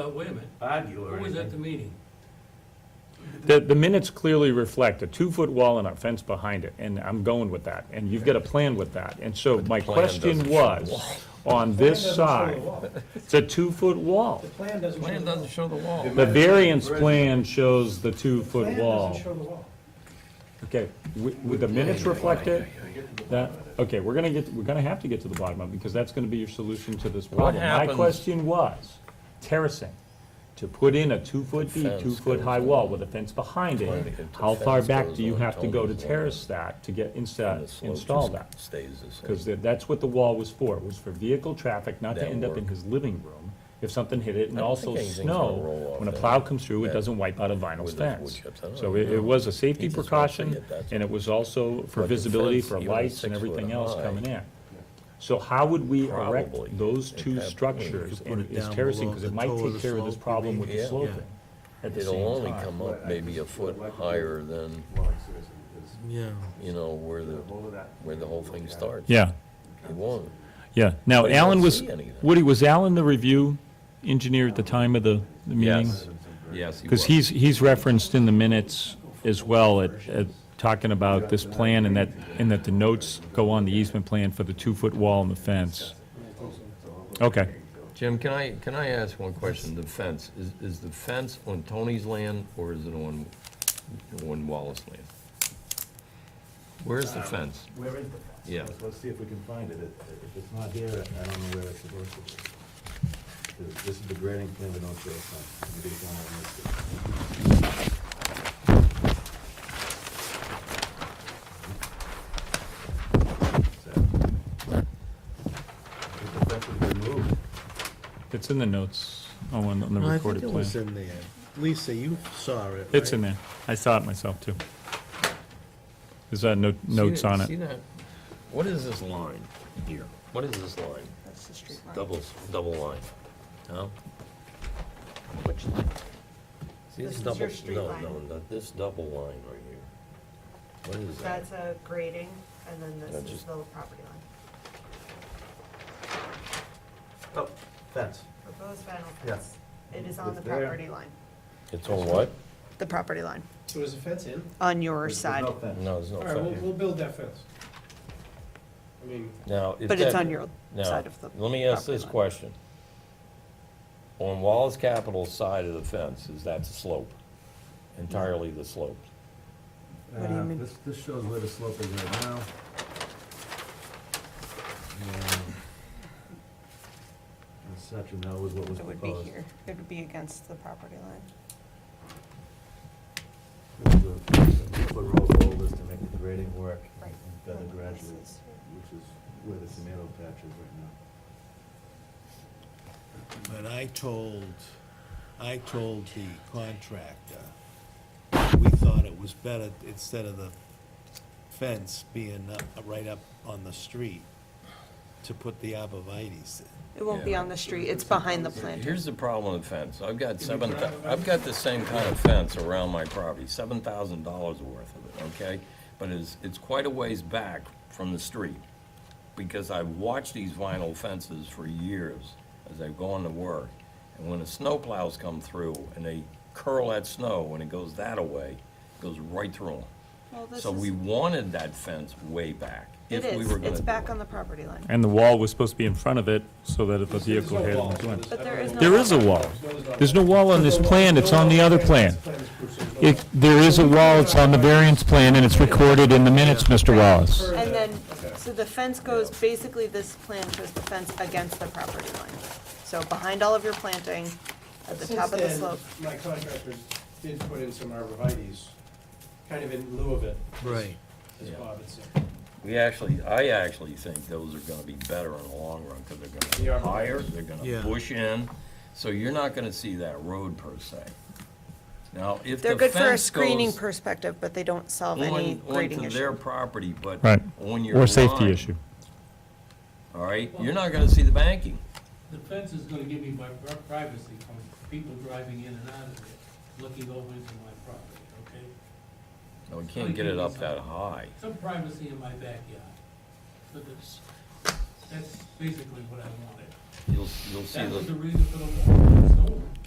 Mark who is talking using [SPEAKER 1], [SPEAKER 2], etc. [SPEAKER 1] Uh, Wait a minute,
[SPEAKER 2] argue or
[SPEAKER 1] who was at the
[SPEAKER 2] anything.
[SPEAKER 1] meeting?
[SPEAKER 3] The, the minutes clearly reflect a two-foot wall and a fence behind it, and I'm going with that, and you've got a plan with that. And so my
[SPEAKER 4] plan
[SPEAKER 3] question
[SPEAKER 4] doesn't show
[SPEAKER 3] was, on this side, it's a two-foot wall.
[SPEAKER 5] The plan doesn't show
[SPEAKER 1] Plan
[SPEAKER 5] the wall.
[SPEAKER 1] doesn't show the wall.
[SPEAKER 3] The variance plan shows the two-foot
[SPEAKER 5] Plan
[SPEAKER 3] wall.
[SPEAKER 5] doesn't show the wall.
[SPEAKER 3] Okay, w- would the minutes reflect it? That, okay, we're gonna get, we're gonna have to get to the bottom of it, because that's gonna be your solution to this problem. My
[SPEAKER 4] happens-
[SPEAKER 3] question was, terracing, to put in a two-foot deep,
[SPEAKER 4] fence
[SPEAKER 3] two-foot-high
[SPEAKER 4] goes
[SPEAKER 3] wall with a fence behind
[SPEAKER 4] Right,
[SPEAKER 3] it,
[SPEAKER 4] if the
[SPEAKER 3] how far
[SPEAKER 4] fence
[SPEAKER 3] back
[SPEAKER 4] goes
[SPEAKER 3] do you
[SPEAKER 4] on,
[SPEAKER 3] have to go to
[SPEAKER 4] it's all-
[SPEAKER 3] terrace that to get
[SPEAKER 4] And
[SPEAKER 3] insta,
[SPEAKER 4] the slope
[SPEAKER 3] install
[SPEAKER 4] just
[SPEAKER 3] that?
[SPEAKER 4] Stays the same.
[SPEAKER 3] Because that's what the wall was for, was for vehicle traffic not to
[SPEAKER 4] That'll
[SPEAKER 3] end up in
[SPEAKER 4] work.
[SPEAKER 3] his living room if something hit it, and
[SPEAKER 4] I don't
[SPEAKER 3] also
[SPEAKER 4] think anything's gonna roll
[SPEAKER 3] snow.
[SPEAKER 4] off
[SPEAKER 3] When a
[SPEAKER 4] that-
[SPEAKER 3] plow comes through, it
[SPEAKER 4] that-
[SPEAKER 3] doesn't wipe out a vinyl
[SPEAKER 4] with those wood
[SPEAKER 3] fence.
[SPEAKER 4] chips. Oh, I don't
[SPEAKER 3] So
[SPEAKER 4] know.
[SPEAKER 3] it, it was a safety
[SPEAKER 4] He just wants to
[SPEAKER 3] precaution,
[SPEAKER 4] get that.
[SPEAKER 3] and it was also for
[SPEAKER 4] But the
[SPEAKER 3] visibility
[SPEAKER 4] fence,
[SPEAKER 3] for
[SPEAKER 4] even
[SPEAKER 3] lights and
[SPEAKER 4] six foot
[SPEAKER 3] everything else
[SPEAKER 4] high,
[SPEAKER 3] coming in. So how would we erect
[SPEAKER 4] Probably.
[SPEAKER 3] those
[SPEAKER 4] It
[SPEAKER 3] two
[SPEAKER 4] have-
[SPEAKER 3] structures,
[SPEAKER 6] You could put
[SPEAKER 3] and
[SPEAKER 6] it
[SPEAKER 3] is
[SPEAKER 6] down
[SPEAKER 3] terracing,
[SPEAKER 6] below
[SPEAKER 3] because
[SPEAKER 6] the
[SPEAKER 3] it might
[SPEAKER 6] toe of
[SPEAKER 3] take
[SPEAKER 6] the
[SPEAKER 3] care of this
[SPEAKER 6] slope, you
[SPEAKER 3] problem with the
[SPEAKER 4] mean? Yeah.
[SPEAKER 3] sloping at the
[SPEAKER 4] It'll
[SPEAKER 3] same
[SPEAKER 4] only
[SPEAKER 3] time.
[SPEAKER 4] come up maybe a foot higher than,
[SPEAKER 6] Yeah.
[SPEAKER 4] you know, where the, where the whole thing starts.
[SPEAKER 3] Yeah,
[SPEAKER 4] It won't.
[SPEAKER 3] yeah. Now,
[SPEAKER 4] But you don't
[SPEAKER 3] Alan was,
[SPEAKER 4] see anything.
[SPEAKER 3] Woody, was Alan the review engineer at the time of the the meeting?
[SPEAKER 4] Yes.
[SPEAKER 3] Because he's, he's referenced in the minutes as well at, at talking about this plan and that, and that the notes go on the easement plan for the two-foot wall and the fence. Okay.
[SPEAKER 4] Jim, can I, can I ask one question? The fence, is, is the fence on Tony's land or is it on, on Wallace land? Where's the fence?
[SPEAKER 2] Where is the fence?
[SPEAKER 4] Yeah.
[SPEAKER 2] Let's- Let's see if we can find it. If if it's not here, I don't know where it's supposed to be. This- This is the grading plan with no show sign. Maybe it's on our list. So, if the fence was removed,
[SPEAKER 3] It's in the notes, oh, on on the
[SPEAKER 6] I think
[SPEAKER 3] recorded
[SPEAKER 6] it was
[SPEAKER 3] plan.
[SPEAKER 6] in there. Lisa, you saw it,
[SPEAKER 3] It's
[SPEAKER 6] right?
[SPEAKER 3] in there. I saw it myself, too. There's, uh, no-
[SPEAKER 4] See
[SPEAKER 3] notes
[SPEAKER 4] that-
[SPEAKER 3] on
[SPEAKER 4] See
[SPEAKER 3] it.
[SPEAKER 4] that? What is this line here? What is this line?
[SPEAKER 7] That's the street line.
[SPEAKER 4] Double, double line? No?
[SPEAKER 7] Which line?
[SPEAKER 4] See, this
[SPEAKER 7] This is
[SPEAKER 4] double,
[SPEAKER 7] your street
[SPEAKER 4] no,
[SPEAKER 7] line.
[SPEAKER 4] no, no, this double line right here. What is that?
[SPEAKER 7] That's a grading, and then
[SPEAKER 4] Yeah,
[SPEAKER 7] this is
[SPEAKER 4] just-
[SPEAKER 7] the property line.
[SPEAKER 2] oh, fence.
[SPEAKER 7] Proposed vinyl
[SPEAKER 2] Yeah.
[SPEAKER 7] fence. It is on
[SPEAKER 2] It's
[SPEAKER 7] the
[SPEAKER 2] there.
[SPEAKER 7] property line.
[SPEAKER 4] It's on what?
[SPEAKER 7] The property line,
[SPEAKER 5] So is the fence in?
[SPEAKER 7] on your
[SPEAKER 2] There's- there's
[SPEAKER 7] side,
[SPEAKER 2] no fence.
[SPEAKER 4] No, there's no
[SPEAKER 5] All right, we'll,
[SPEAKER 4] fence.
[SPEAKER 5] we'll build that fence. I mean,
[SPEAKER 4] Now, if
[SPEAKER 7] but it's
[SPEAKER 4] that-
[SPEAKER 7] on your
[SPEAKER 4] Now,
[SPEAKER 7] side of the.
[SPEAKER 4] let me ask
[SPEAKER 7] property
[SPEAKER 4] this
[SPEAKER 7] line.
[SPEAKER 4] question. On Wallace Capital's side of the fence, is that the slope? Entirely the slope?
[SPEAKER 7] What do you
[SPEAKER 2] Uh,
[SPEAKER 7] mean?
[SPEAKER 2] This, this shows where the slope is right now. And This section, that was what was
[SPEAKER 7] It would be
[SPEAKER 2] proposed.
[SPEAKER 7] here, it would be against the property line.
[SPEAKER 2] This is a Foot roll of boulders to make the grading work and
[SPEAKER 7] Right.
[SPEAKER 2] better
[SPEAKER 7] And
[SPEAKER 2] gradually,
[SPEAKER 7] this is here.
[SPEAKER 2] which is where the tomato patch is right now.
[SPEAKER 6] But I told, I told the contractor, we thought it was better, instead of the fence being up, right up on the street, to put the arborvitae's in.
[SPEAKER 7] It won't be on the street, it's behind the planter.
[SPEAKER 4] Here's the problem with fence. I've got seven, thou- I've got the same kind of fence around my property, seven thousand dollars worth of it, okay? But it's, it's quite a ways back from the street, because I've watched these vinyl fences for years as I've gone to work. And when the snowplows come through and they curl that snow and it goes that away, it goes right through them.
[SPEAKER 7] Well, this
[SPEAKER 4] So
[SPEAKER 7] is-
[SPEAKER 4] we wanted that fence way back.
[SPEAKER 7] It
[SPEAKER 4] if we
[SPEAKER 7] is,
[SPEAKER 4] were gonna
[SPEAKER 7] it's
[SPEAKER 4] do
[SPEAKER 7] back
[SPEAKER 4] it.
[SPEAKER 7] on the property line.
[SPEAKER 3] And the wall was supposed to be in front of it, so that if a
[SPEAKER 5] there's
[SPEAKER 3] vehicle
[SPEAKER 5] no
[SPEAKER 3] hit
[SPEAKER 5] wall.
[SPEAKER 3] it. it went.
[SPEAKER 5] There's- I
[SPEAKER 7] But there
[SPEAKER 5] don't
[SPEAKER 7] is
[SPEAKER 5] know.
[SPEAKER 7] no
[SPEAKER 3] There is a wall. There's no wall on this plan, it's on the other plan. It, there is a wall, it's on the variance plan, and it's recorded in the minutes, Mr. Wallace.
[SPEAKER 7] And then, so the fence goes, basically this plan shows the fence against the property line. So behind all of your planting, at the top of the slope.
[SPEAKER 5] Since then, my contractors did put in some arborvitae's, kind of in lieu of it,
[SPEAKER 6] Right.
[SPEAKER 5] as
[SPEAKER 4] Yeah.
[SPEAKER 5] Bob had said.
[SPEAKER 4] We actually, I actually think those are gonna be better in the long run, because they're
[SPEAKER 5] Yeah.
[SPEAKER 4] gonna be higher, they're gonna
[SPEAKER 6] Yeah.
[SPEAKER 4] push in, so you're not gonna see that road per se. Now, if
[SPEAKER 7] They're
[SPEAKER 4] the
[SPEAKER 7] good for a
[SPEAKER 4] fence
[SPEAKER 7] screening
[SPEAKER 4] goes
[SPEAKER 7] perspective, but they don't solve any
[SPEAKER 4] on,
[SPEAKER 7] grading
[SPEAKER 4] onto their
[SPEAKER 7] issue.
[SPEAKER 4] property, but
[SPEAKER 3] Right.
[SPEAKER 4] on your
[SPEAKER 3] Or safety
[SPEAKER 4] line,
[SPEAKER 3] issue.
[SPEAKER 4] All right, you're not gonna see the banking.
[SPEAKER 1] The fence is gonna give me my pri- privacy from people driving in and out of it, looking over into my property, okay?
[SPEAKER 4] No, we can't get it up that high.
[SPEAKER 1] Some privacy in my backyard, but that's, that's basically what I wanted.
[SPEAKER 4] You'll, you'll see
[SPEAKER 1] That was the
[SPEAKER 4] the,
[SPEAKER 1] reason for the wall, so